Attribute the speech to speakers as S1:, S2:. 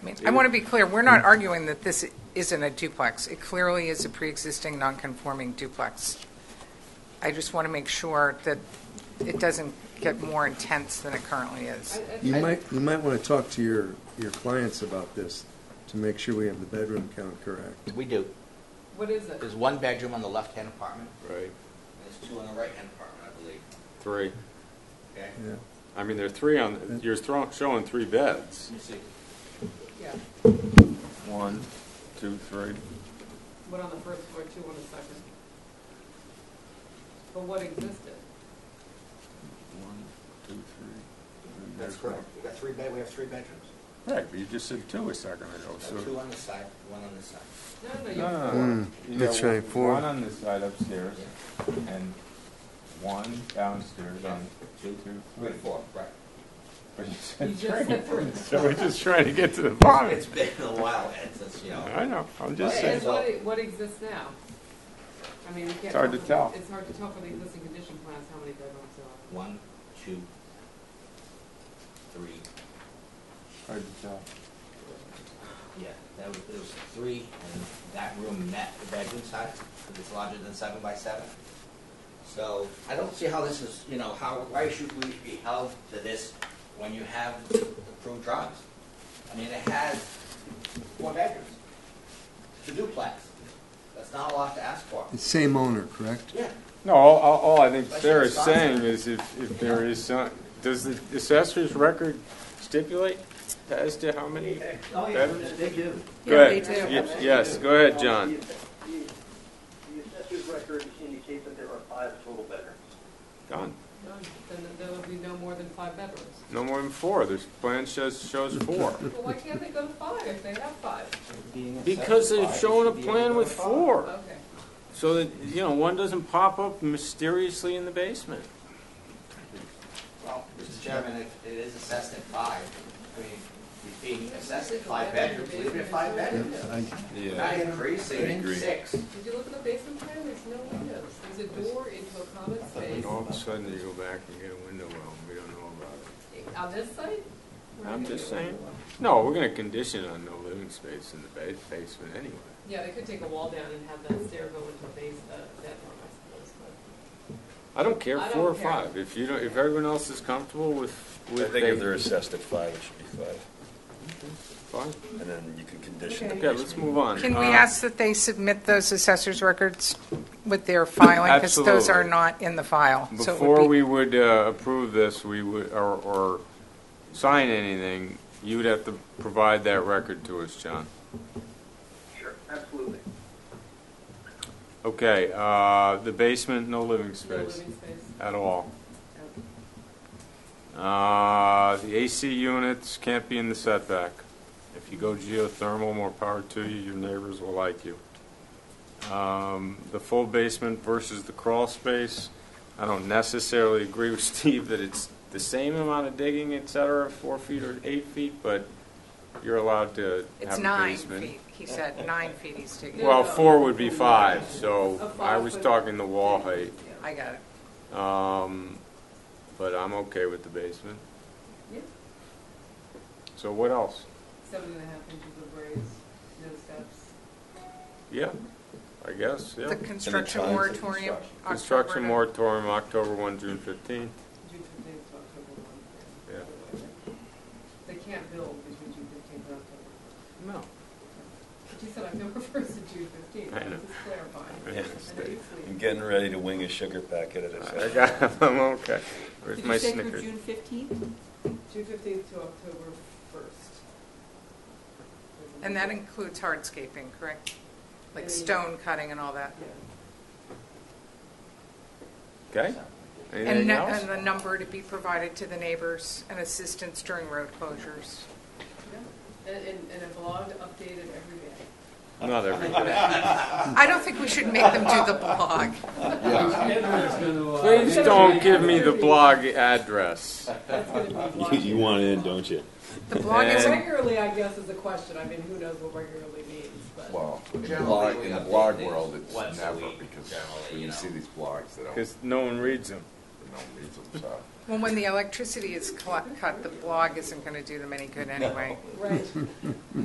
S1: mean, I want to be clear, we're not arguing that this isn't a duplex. It clearly is a pre-existing non-conforming duplex. I just want to make sure that it doesn't get more intense than it currently is.
S2: You might, you might want to talk to your, your clients about this to make sure we have the bedroom count correct.
S3: We do.
S4: What is it?
S3: There's one bedroom on the left-hand apartment,
S5: Right,
S3: and there's two on the right-hand apartment, I believe,
S5: three.
S3: okay?
S2: Yeah.
S5: I mean, there are three on, you're throw- showing three beds.
S3: Let me see.
S4: Yeah,
S5: One, two, three.
S4: one on the first floor, two on the second. But what existed?
S5: One, two, three.
S3: That's correct. We got three bed, we have three bedrooms.
S5: Right, but you just said two a second ago,
S3: We got Two
S5: so.
S3: on this side, one on this side.
S6: No,
S4: No,
S6: no,
S4: no,
S2: Mm,
S6: no. You got
S2: that's right, four.
S6: One on this side upstairs
S3: Yeah.
S6: and one downstairs on two, two, three.
S3: We got four, right.
S6: But you
S4: you, you
S6: said
S4: just
S6: three.
S4: said three.
S5: So we're just trying to get to the bottom.
S3: It's been a while, Ed, since, you know.
S5: I know, I'm just
S3: Right.
S4: And
S5: saying.
S4: what, what exists now? I mean, we can't.
S6: It's hard to tell.
S4: It's hard to tell from the existing condition plans how many bedrooms there
S3: One, two, three,
S6: Hard to tell.
S3: yeah, that was, it was three, and that room met the bedroom size, because it's larger than seven by seven. So I don't see how this is, you know, how, why should we be held to this when you have approved drawings? I mean, it has four bedrooms, it's a duplex, that's not a lot to ask for.
S2: The Same owner, correct?
S3: Yeah,
S5: No, all, all all I think
S3: That's
S5: Sarah's
S3: what it's on.
S5: saying is if, if there is some, does the assessor's record stipulate as to how many?
S3: oh, yeah,
S5: Bedrooms?
S3: they do.
S5: Go
S4: are.
S5: ahead. Ye- Yes, go ahead, John.
S7: The the assessor's record indicates that there are five total bedrooms.
S5: Done.
S4: None. Then there will be no more than five bedrooms.
S5: No more than four. This plan shows, shows four.
S4: Well, why can't they go to five if they have five?
S5: Because they've shown a plan with four,
S4: Okay.
S5: so that, you know, one doesn't pop up mysteriously in the basement.
S3: Well, Mr. Chairman, if it is assessed at five, I mean, it's being assessed at five bedrooms, leave it at five bedrooms.
S2: I-
S3: Not increasing
S5: agree.
S3: six.
S4: Did you look at the basement plan? There's no windows. There's a door into a common space.
S5: All of a sudden, you go back and get a window well, we don't know about it.
S4: On this side? We're not
S5: I'm
S4: gonna
S5: just
S4: get a
S5: saying.
S4: window.
S5: No, we're gonna condition on no living space in the ba- basement anyway.
S4: Yeah, they could take a wall down and have that stair go into a base, uh, bedroom, I suppose, but.
S5: I don't care,
S4: I
S5: four or
S4: don't care.
S5: five, if you don't, if everyone else is comfortable with,
S8: I
S5: with.
S8: think
S5: they-
S8: if they're assessed at five, it should be five,
S5: Fine,
S8: and then you can condition the
S4: Okay.
S5: okay, let's move on.
S1: Can we
S5: Uh,
S1: ask that they submit those assessors' records with their filing? Because those are
S5: Absolutely.
S1: not in the file. So it would
S5: Before
S1: be-
S5: we would uh, approve this, we would, or, or sign anything, you would have to provide that record to us, John.
S7: Sure, absolutely.
S5: Okay, uh, the basement, no living
S4: No
S5: space
S4: living space.
S5: at all. Uh, the AC units can't be in the setback. If you go geothermal, more power to you, your neighbors will like you. Um, the full basement versus the crawl space, I don't necessarily agree with Steve that it's the same amount of digging, et cetera, four feet or eight feet, but you're allowed to
S1: It's
S5: have a
S1: nine
S5: basement.
S1: feet, he said, nine feet he's taking.
S5: Well,
S4: No, no.
S5: four would be five,
S4: A
S5: so I
S4: five
S5: was
S4: foot-
S5: talking the wall height.
S1: I got it.
S5: Um, but I'm okay with the basement.
S4: Yeah,
S5: So what else?
S4: seven and a half inches of raise, no steps.
S5: Yeah, I guess, yeah.
S1: The construction
S8: times of
S1: moratorium,
S8: construction.
S1: October
S5: Construction
S1: to-
S5: moratorium, October 1, June 15.
S4: June fifteenth to October one.
S5: Yeah.
S4: They can't build between June fifteenth and October. one.
S5: No.
S4: But you said October first to June fifteenth,
S5: I
S4: I
S5: know.
S4: was just clarifying.
S5: I
S8: Yeah.
S4: I know you
S8: basement.
S4: sleep.
S8: I'm getting ready to wing a sugar packet at
S5: I
S8: assessment.
S5: got, I'm okay. Where's my Snickers?
S4: June fifteenth to October first.
S1: And that includes hardscaping, correct? Like
S4: Yeah.
S1: stone cutting and all that?
S4: Yeah.
S5: Okay?
S1: And
S5: Anything
S1: nu-
S5: else?
S1: and the number to be provided to the neighbors and assistance during road closures.
S4: Yeah. And, and, and a blog updated every day.
S5: Not everybody. Hmm.
S1: I don't think we should make them do the blog.
S5: Please don't give me the blog address.
S4: That's gonna be
S8: You-
S4: blogged.
S8: You want in, don't you?
S1: The blog is,
S5: And-
S4: Regularly, I guess, is a question. I mean, who knows what regularly means, but.
S9: Well, in the
S3: Generally,
S9: blog,
S3: we
S9: in the
S3: update
S9: blog
S3: things
S9: world, it's
S3: once a
S9: never,
S3: week,
S9: because
S3: generally,
S9: when
S3: you
S9: you
S3: know.
S9: see these blogs, they don't, they
S5: Because no one reads them.
S9: don't read them, so.
S1: well, when the electricity is cl- cut, the blog isn't going to do them any good anyway.
S4: Right.